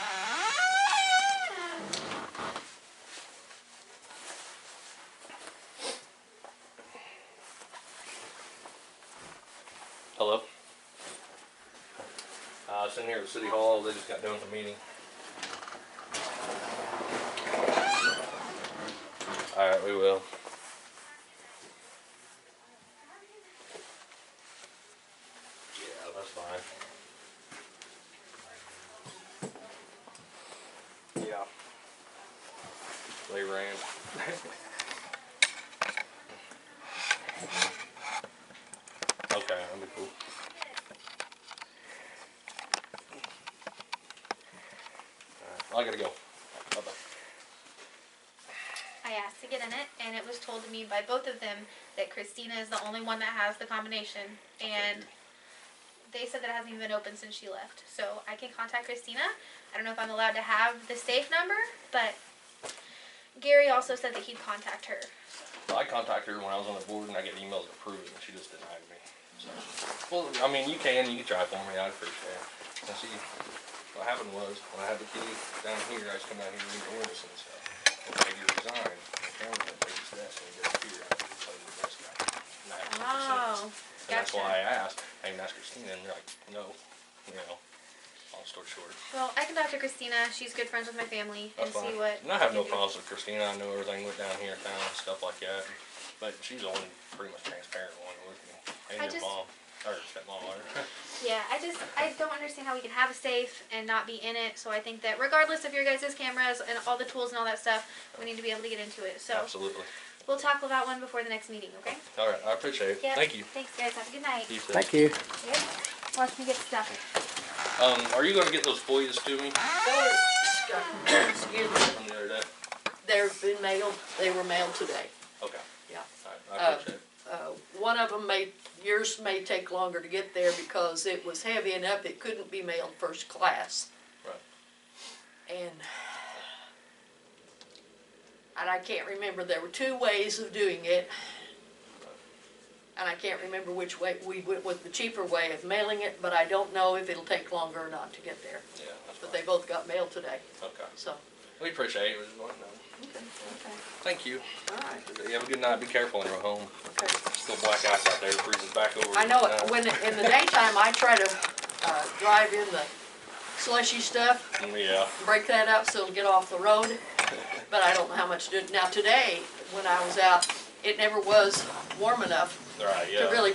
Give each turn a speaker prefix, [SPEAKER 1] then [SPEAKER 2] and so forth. [SPEAKER 1] Uh, it's in here at City Hall, they just got done with the meeting. Alright, we will. Yeah, that's fine.
[SPEAKER 2] Yeah.
[SPEAKER 1] They ran. Okay, that'll be cool. Alright, I gotta go. Bye-bye.
[SPEAKER 3] I asked to get in it, and it was told to me by both of them that Christina is the only one that has the combination, and they said that it hasn't even been opened since she left. So I can contact Christina. I don't know if I'm allowed to have the safe number, but Gary also said that he'd contact her.
[SPEAKER 1] So I contacted her when I was on the board and I get emails to prove it and she just denied me. So, well, I mean, you can, you can try for me, I'd appreciate it. And see, what happened was, when I had the key down here, I just come down here and read the ordinance and stuff. And Peggy resigned, the camera went to his desk and he disappeared after he played with this guy. And I had to take the
[SPEAKER 3] Oh.
[SPEAKER 1] sentence. And that's why I asked, I even asked Christina and they're like, no, you know, long story short.
[SPEAKER 3] Well, I can talk to Christina. She's good friends with my family and
[SPEAKER 1] That's fine.
[SPEAKER 3] see what.
[SPEAKER 1] And I have no
[SPEAKER 3] we can do.
[SPEAKER 1] problems with Christina. I know everything went down here in town and stuff like that. But she's the only pretty much transparent one with me.
[SPEAKER 3] I
[SPEAKER 1] And your
[SPEAKER 3] just-
[SPEAKER 1] mom, or stepmom, or.
[SPEAKER 3] Yeah, I just I don't understand how we can have a safe and not be in it. So I think that regardless of your guys' cameras and all the tools and all that stuff, we need to be able to get into it. So
[SPEAKER 1] Absolutely.
[SPEAKER 3] we'll tackle that one before the next meeting, okay?
[SPEAKER 1] All right, I appreciate it.
[SPEAKER 3] Yeah.
[SPEAKER 1] Thank you.
[SPEAKER 3] Thanks guys. Have a good night.
[SPEAKER 1] You too.
[SPEAKER 4] Thank you.
[SPEAKER 3] Yep. Watch me get stuff.
[SPEAKER 1] Um, are you gonna get those FOIAs to me
[SPEAKER 5] Excuse me.
[SPEAKER 1] from the other day?
[SPEAKER 5] They've been mailed, they were mailed today.
[SPEAKER 1] Okay.
[SPEAKER 5] Yeah.
[SPEAKER 1] All right,
[SPEAKER 3] Oh.
[SPEAKER 1] I appreciate it.
[SPEAKER 5] Uh, One of them may, yours may take longer to get there because it was heavy enough, it couldn't be mailed first class.
[SPEAKER 1] Right.
[SPEAKER 5] And, and I can't remember, there were two ways of doing it. And I can't remember which way, we went with the cheaper way of mailing it, but I don't know if it'll take longer or not to get there.
[SPEAKER 1] Yeah, that's
[SPEAKER 5] But they
[SPEAKER 1] fine.
[SPEAKER 5] both got mailed today,
[SPEAKER 1] Okay.
[SPEAKER 5] so.
[SPEAKER 1] We appreciate it. We just wanted to know. Thank you.
[SPEAKER 5] All right,
[SPEAKER 1] You have a good night. Be careful on your way home.
[SPEAKER 5] okay.
[SPEAKER 1] It's Still black ice out there. It freezes back over.
[SPEAKER 5] I know,
[SPEAKER 1] tonight.
[SPEAKER 5] it. when, in the daytime, I try to, uh, drive in the slushy stuff,
[SPEAKER 1] Yeah.
[SPEAKER 5] break that up so it'll get off the road, but I don't know how much to do. Now, today, when I was out, it never was warm enough
[SPEAKER 1] All right,
[SPEAKER 5] to
[SPEAKER 1] yeah.
[SPEAKER 5] really